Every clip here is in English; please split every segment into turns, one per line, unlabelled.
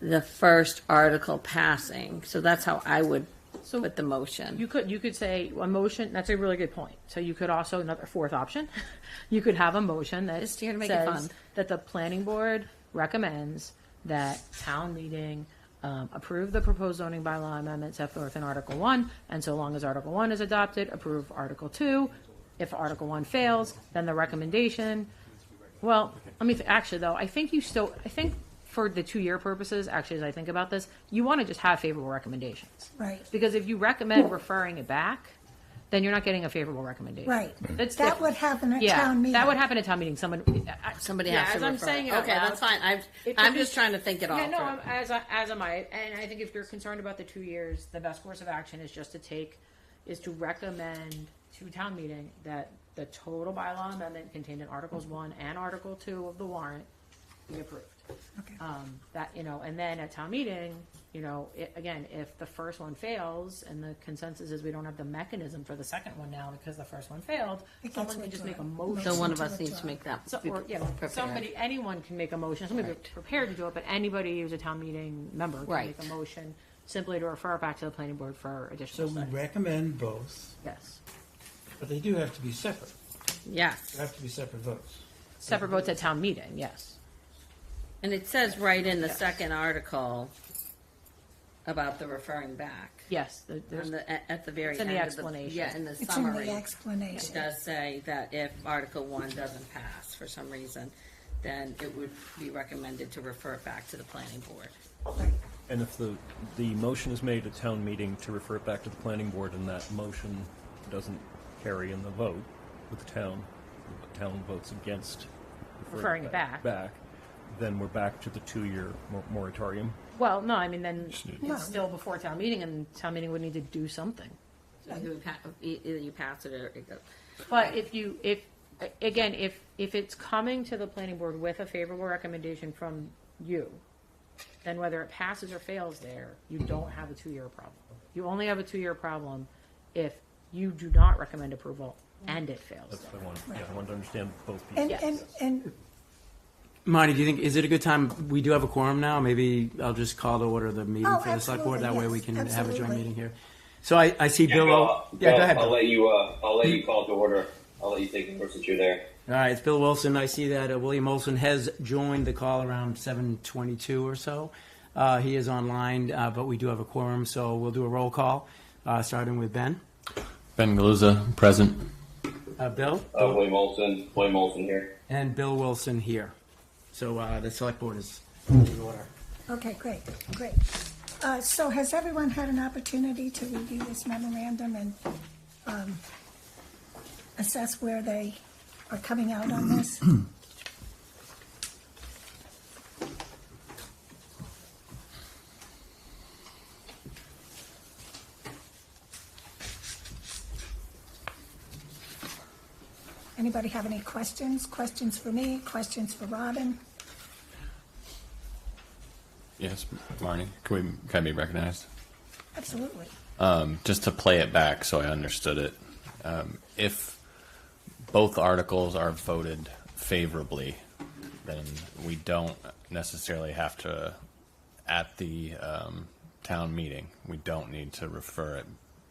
the first article passing. So that's how I would put the motion.
You could, you could say a motion, that's a really good point. So you could also, another fourth option, you could have a motion that
Just here to make it
says
fun.
That the planning board recommends that town meeting um, approve the proposed zoning bylaw amendment set forth in Article One, and so long as Article One is adopted, approve Article Two. If Article One fails, then the recommendation, well, let me, th- actually though, I think you still, I think for the two-year purposes, actually, as I think about this, you want to just have favorable recommendations.
Right.
Because if you recommend referring it back, then you're not getting a favorable recommendation.
Right.
That's
That
different.
would happen at
Yeah,
town meeting.
That would happen at town meeting, someone. I-
Somebody
yeah,
has to
as I'm
refer.
saying it out
Okay,
loud.
that's fine. I'm,
It
I'm
could
just
be-
trying to think it all
Yeah, no, I'm,
through.
as, I- as am I, and I think if you're concerned about the two years, the best course of action is just to take, is to recommend to town meeting that the total bylaw amendment contained in Articles One and Article Two of the warrant be approved.
Okay.
Um, that, you know, and then at town meeting, you know, it, again, if the first one fails and the consensus is we don't have the mechanism for the second one now because the first one failed,
It gets
someone can just make a
withdrawn.
motion.
So one of us needs to make that.
So, or, yeah,
prepared.
somebody, anyone can make a motion, somebody be prepared to do it, but anybody who's a town meeting member can
Right.
make a motion simply to refer it back to the planning board for
So
additional
we
study.
recommend both,
Yes.
but they do have to be separate. They
Yes.
have to be separate votes.
Separate votes at town meeting, yes.
And it says right in the second article about the referring back.
Yes, the- there's,
On the, at, at the very
It's
end
in the
of
explanation.
Yeah, in the
It's in
summary.
the
It
explanation.
does say that if Article One doesn't pass for some reason, then it would be recommended to refer it back to the planning board.
And if the, the motion is made at town meeting to refer it back to the planning board and that motion doesn't carry in the vote with the town, the town votes against
Referring it back.
Back, then we're back to the two-year mor- moratorium.
well, no, I mean, then
No.
it's still before town meeting and town meeting would need to do something.
So you would pa- e- Either you pass it or it goes.
But if you, if, again, if, if it's coming to the planning board with a favorable recommendation from you, then whether it passes or fails there, you don't have a two-year problem. You only have a two-year problem if you do not recommend approval and it fails
That's
there.
what I wanted, yeah, I wanted to understand both pieces.
And, and, and
Marty, do you think, is it a good time, we do have a quorum now, maybe I'll just call to order the meeting
Oh,
for the select
absolutely,
board, that way
yes,
we can have a joint
absolutely.
meeting here. So I, I see Bill,
Bill,
Wil-
I'll-
yeah, go
Bill,
ahead.
I'll
Bill. All
let you. Uh, I'll let you call to order. I'll let you take the first since you're there.
right, it's Bill Wilson, I see that uh, William Olson has joined the call around seven twenty-two or so. Uh, he is online, uh, but we do have a quorum, so we'll do a roll call, uh, starting with Ben.
Ben Galuza, present.
Uh, Bill?
Uh, William Olson. William Olson here.
And Bill Wilson here. So, uh, the select board is in order.
Okay, great, great. Uh, So has everyone had an opportunity to review this memorandum and um, assess where they are coming out on this? Anybody have any questions? Questions for me? Questions for Robin?
Yes, Marnie. Can we, can I be recognized?
Absolutely.
Um, just to play it back so I understood it. Um, if both articles are voted favorably, then we don't necessarily have to, at the um, town meeting, we don't need to refer it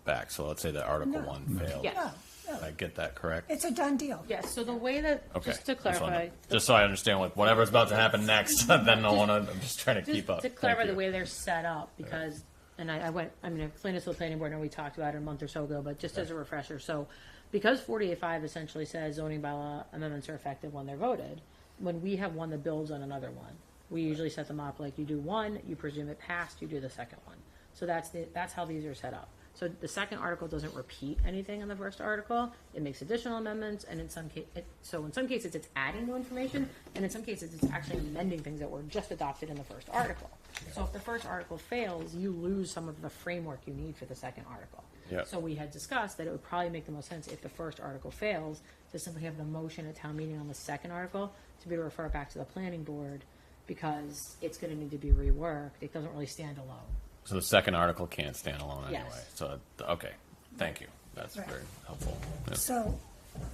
back. So let's say that Article
No.
1 failed.
Yeah.
Oh, no.
Did I get that correct?
It's a done deal.
Yes, so the way that,
okay.
just to
wanna-
clarify,
just so I understand what whatever's about to happen next, then I want to. I'm just trying to
just
keep up.
to
Thank
clarify the
you.
way they're set up, because, and I, I went, I mean, I explained this to the planning board, and we talked about it a month or so ago, but just as a refresher, so because forty-eight five essentially says zoning bylaw amendments are effective when they're voted, when we have one that builds on another one, we usually set them up like you do one, you presume it passed, you do the second one. So that's the, that's how these are set up. So the second article doesn't repeat anything in the first article. It makes additional amendments, and in some ca- it, so in some cases it's adding new information, and in some cases it's actually amending things that were just adopted in the first article. So if the first article fails, you lose some of the framework you need for the second article.
Yeah.
So we had discussed that it would probably make the most sense if the first article fails to simply have the motion at town meeting on the second article to be referred back to the planning board because it's going to need to be reworked. It doesn't really stand alone.
So the second article can't stand alone
Yes.
anyway. So uh, okay, thank you. That's
Right.
very helpful. Yeah.
So,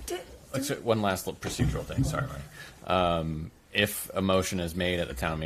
did,
Except one last little procedural thing. Sorry, Mike. Um, if a motion is made at the town meeting.